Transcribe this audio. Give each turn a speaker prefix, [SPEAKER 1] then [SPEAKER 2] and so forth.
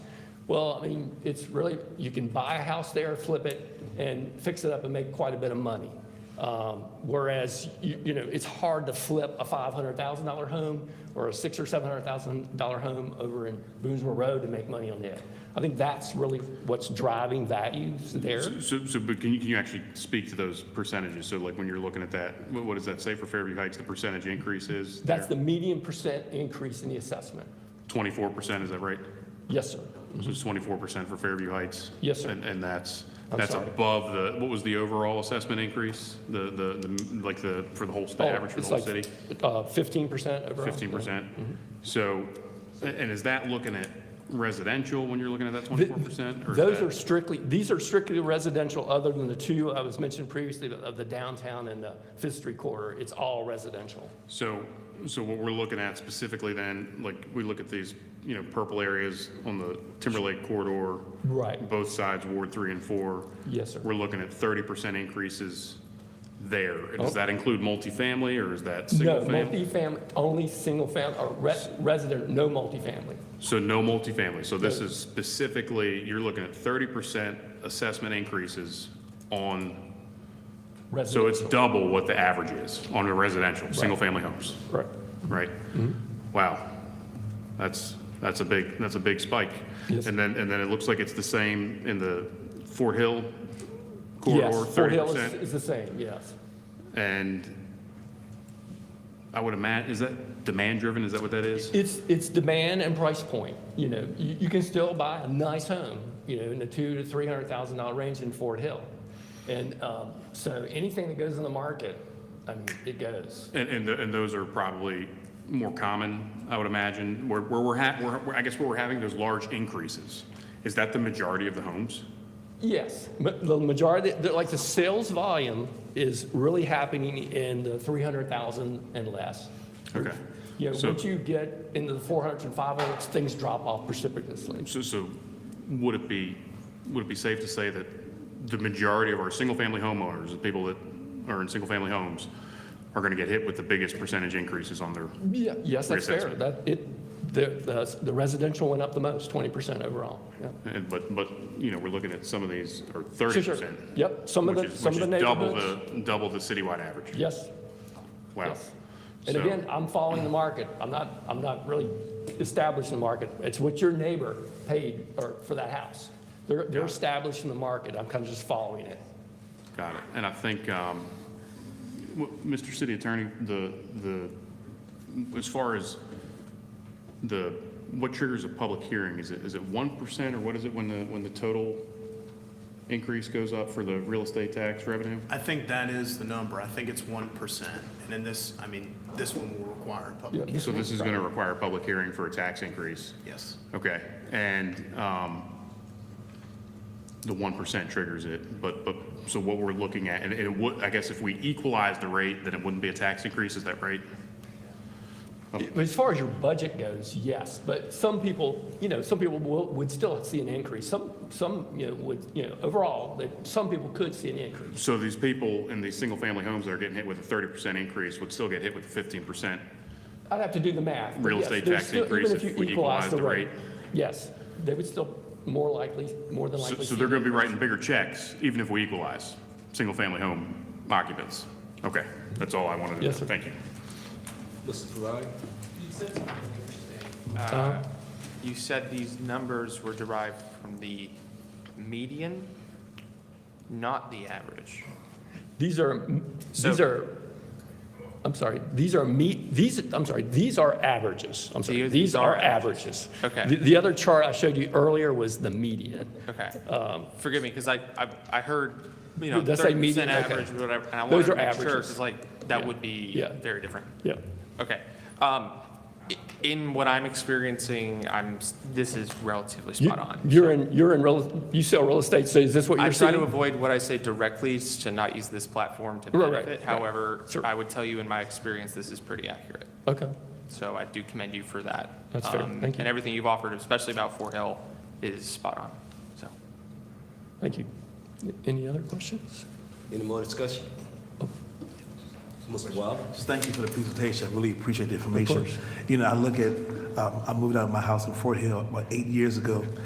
[SPEAKER 1] Well, I mean, it's really, you can buy a house there, flip it, and fix it up and make quite a bit of money. Um, Whereas, you you know, it's hard to flip a $500,000 home or a six or $700,000 home over in Boonesborough Road to make money on it. I think that's really what's driving values there.
[SPEAKER 2] So, so, but can you, can you actually speak to those percentages? So like when you're looking at that, what what does that say for Fairview Heights, the percentage increase is?
[SPEAKER 1] That's the median percent increase in the assessment.
[SPEAKER 2] Twenty-four percent, is that right?
[SPEAKER 1] Yes, sir.
[SPEAKER 2] So it's twenty-four percent for Fairview Heights?
[SPEAKER 1] Yes, sir.
[SPEAKER 2] And, and that's,
[SPEAKER 1] I'm
[SPEAKER 2] that's
[SPEAKER 1] sorry.
[SPEAKER 2] above the, what was the overall assessment increase? The, the, the like the, for the whole, the average for the
[SPEAKER 1] Oh, It's
[SPEAKER 2] whole
[SPEAKER 1] like, Mm-hmm.
[SPEAKER 2] city?
[SPEAKER 1] uh, 15% overall.
[SPEAKER 2] Fifteen percent? So, a- and is that looking at residential when you're looking at that
[SPEAKER 1] Th-
[SPEAKER 2] twenty-four percent?
[SPEAKER 1] Those are strictly, these are strictly residential, other than the two I was mentioned previously of the downtown and the Fifth Street corridor. It's all residential.
[SPEAKER 2] So, so what we're looking at specifically then, like, we look at these, you know, purple areas on the Timberlake corridor,
[SPEAKER 1] Right.
[SPEAKER 2] both sides, Ward three and four.
[SPEAKER 1] Yes, sir.
[SPEAKER 2] We're looking at thirty percent increases there. Does that include multifamily or is that
[SPEAKER 1] No,
[SPEAKER 2] single family?
[SPEAKER 1] multifamily, only single family, or res- resident, no multifamily.
[SPEAKER 2] So no multifamily. So this is specifically, you're looking at thirty percent assessment increases on, so it's
[SPEAKER 1] Residential.
[SPEAKER 2] double what the average is on a residential, single-family homes.
[SPEAKER 1] Right.
[SPEAKER 2] right?
[SPEAKER 1] Mm-hmm.
[SPEAKER 2] Wow, that's, that's a big, that's a big spike.
[SPEAKER 1] Yes.
[SPEAKER 2] And then, and then it looks like it's the same in the Fort Hill corridor,
[SPEAKER 1] Yes, Fort
[SPEAKER 2] thirty
[SPEAKER 1] Hill is-
[SPEAKER 2] percent.
[SPEAKER 1] is the same, yes.
[SPEAKER 2] And I would imagine, is that demand-driven, is that what that is?
[SPEAKER 1] It's, it's demand and price point, you know, you, you can still buy a nice home, you know, in the two to three hundred thousand dollar range in Fort Hill. And, um, so anything that goes in the market, I mean, it goes.
[SPEAKER 2] And, and, th- and those are probably more common, I would imagine, where, where we're ha, where, where- I guess where we're having those large increases. Is that the majority of the homes?
[SPEAKER 1] Yes, ma- the majority, the- like the sales volume is really happening in the three hundred thousand and less.
[SPEAKER 2] Okay.
[SPEAKER 1] You know,
[SPEAKER 2] So-
[SPEAKER 1] once you get into the four hundreds and five hundreds, things drop off precipitously.
[SPEAKER 2] So, so would it be, would it be safe to say that the majority of our single-family homeowners, the people that are in single-family homes, are gonna get hit with the biggest percentage increases on their,
[SPEAKER 1] Yeah, yes, that's fair,
[SPEAKER 2] Reassessment.
[SPEAKER 1] that, it, the, the- the residential went up the most, twenty percent overall, yeah.
[SPEAKER 2] and- but, but, you know, we're looking at some of these are
[SPEAKER 1] Sure,
[SPEAKER 2] thirty
[SPEAKER 1] sure.
[SPEAKER 2] percent.
[SPEAKER 1] Yep, some of the, some of the
[SPEAKER 2] Which
[SPEAKER 1] neighborhoods.
[SPEAKER 2] is double the, double the citywide average.
[SPEAKER 1] Yes,
[SPEAKER 2] Wow.
[SPEAKER 1] yes. And
[SPEAKER 2] So-
[SPEAKER 1] again, I'm following the market. I'm not, I'm not really establishing the market. It's what your neighbor paid or for that house. They're, they're establishing the market. I'm kind of just following it.
[SPEAKER 2] Got it. And I think, um, w- Mr. City Attorney, the, the, as far as the, what triggers a public hearing, is it, is it 1% or what is it when the, when the total increase goes up for the real estate tax revenue?
[SPEAKER 3] I think that is the number. I think it's one percent. And in this, I mean, this one will require a public,
[SPEAKER 1] Yeah.
[SPEAKER 2] So this is going to require a public hearing for a tax increase?
[SPEAKER 3] yes.
[SPEAKER 2] Okay, and um, the 1% triggers it, but, but, so what we're looking at, and it would, I guess if we equalize the rate, then it wouldn't be a tax increase, is that right?
[SPEAKER 1] As far as your budget goes, yes, but some people, you know, some people will, would still see an increase. Some, some, you know, would, you know, overall, that some people could see an increase.
[SPEAKER 2] So these people in these single-family homes that are getting hit with a thirty percent increase would still get hit with a fifteen percent?
[SPEAKER 1] I'd have to do the math. but
[SPEAKER 2] Real
[SPEAKER 1] yes,
[SPEAKER 2] estate
[SPEAKER 1] there's
[SPEAKER 2] tax
[SPEAKER 1] still- even
[SPEAKER 2] increase if
[SPEAKER 1] you
[SPEAKER 2] we
[SPEAKER 1] equalize
[SPEAKER 2] equalize the rate.
[SPEAKER 1] Yes, they would still more likely, more than
[SPEAKER 2] So
[SPEAKER 1] likely.
[SPEAKER 2] so
[SPEAKER 1] see
[SPEAKER 2] they're
[SPEAKER 1] an
[SPEAKER 2] gonna be
[SPEAKER 1] increase.
[SPEAKER 2] writing bigger checks, even if we equalize, single-family home occupants? Okay, that's all I wanted to know.
[SPEAKER 1] Yes, sir.
[SPEAKER 2] Thank you.
[SPEAKER 4] Mr. Ferrari?
[SPEAKER 5] Uh, You said these numbers were derived from the median, not the average.
[SPEAKER 1] These are,
[SPEAKER 5] So-
[SPEAKER 1] these are, I'm sorry, these are meet, these, I'm sorry, these are averages. I'm sorry,
[SPEAKER 5] These-
[SPEAKER 1] these
[SPEAKER 5] these
[SPEAKER 1] are
[SPEAKER 5] are
[SPEAKER 1] averages.
[SPEAKER 5] Okay.
[SPEAKER 1] The- The other chart I showed you earlier was the median.
[SPEAKER 5] Okay.
[SPEAKER 1] Um,
[SPEAKER 5] Forgive me, because I, I, I heard, you know,
[SPEAKER 1] Did I say
[SPEAKER 5] thirty
[SPEAKER 1] median?
[SPEAKER 5] percent
[SPEAKER 1] Okay.
[SPEAKER 5] average, whatever, and I
[SPEAKER 1] Those
[SPEAKER 5] wanted
[SPEAKER 1] are
[SPEAKER 5] to make sure,
[SPEAKER 1] averages.
[SPEAKER 5] 'cause, like, that
[SPEAKER 1] Yeah.
[SPEAKER 5] would be
[SPEAKER 1] Yeah.
[SPEAKER 5] very different.
[SPEAKER 1] Yeah,
[SPEAKER 5] Okay. Um, i- in what I'm experiencing, I'm, s- this is relatively
[SPEAKER 1] You-
[SPEAKER 5] spot on.
[SPEAKER 1] You're in, you're in real, you sell real estate, so is this what
[SPEAKER 5] I
[SPEAKER 1] you're
[SPEAKER 5] try to
[SPEAKER 1] seeing?
[SPEAKER 5] avoid what I say directly s- to not use this platform to
[SPEAKER 1] Right, right,
[SPEAKER 5] benefit.
[SPEAKER 1] right.
[SPEAKER 5] However,
[SPEAKER 1] Sure.
[SPEAKER 5] I would tell you in my experience, this is pretty accurate.
[SPEAKER 1] Okay,
[SPEAKER 5] So I do commend you for that.
[SPEAKER 1] That's fair.
[SPEAKER 5] Um,
[SPEAKER 1] Thank you.
[SPEAKER 5] And everything you've offered, especially about Fort Hill, is spot on. So,
[SPEAKER 1] thank you. Any other questions?
[SPEAKER 4] Any more discussion? Mr. Wilder?
[SPEAKER 6] Just thank you for the presentation. I really appreciate the information. You know, I look at, um, I moved out of my house in Fort Hill about eight years ago.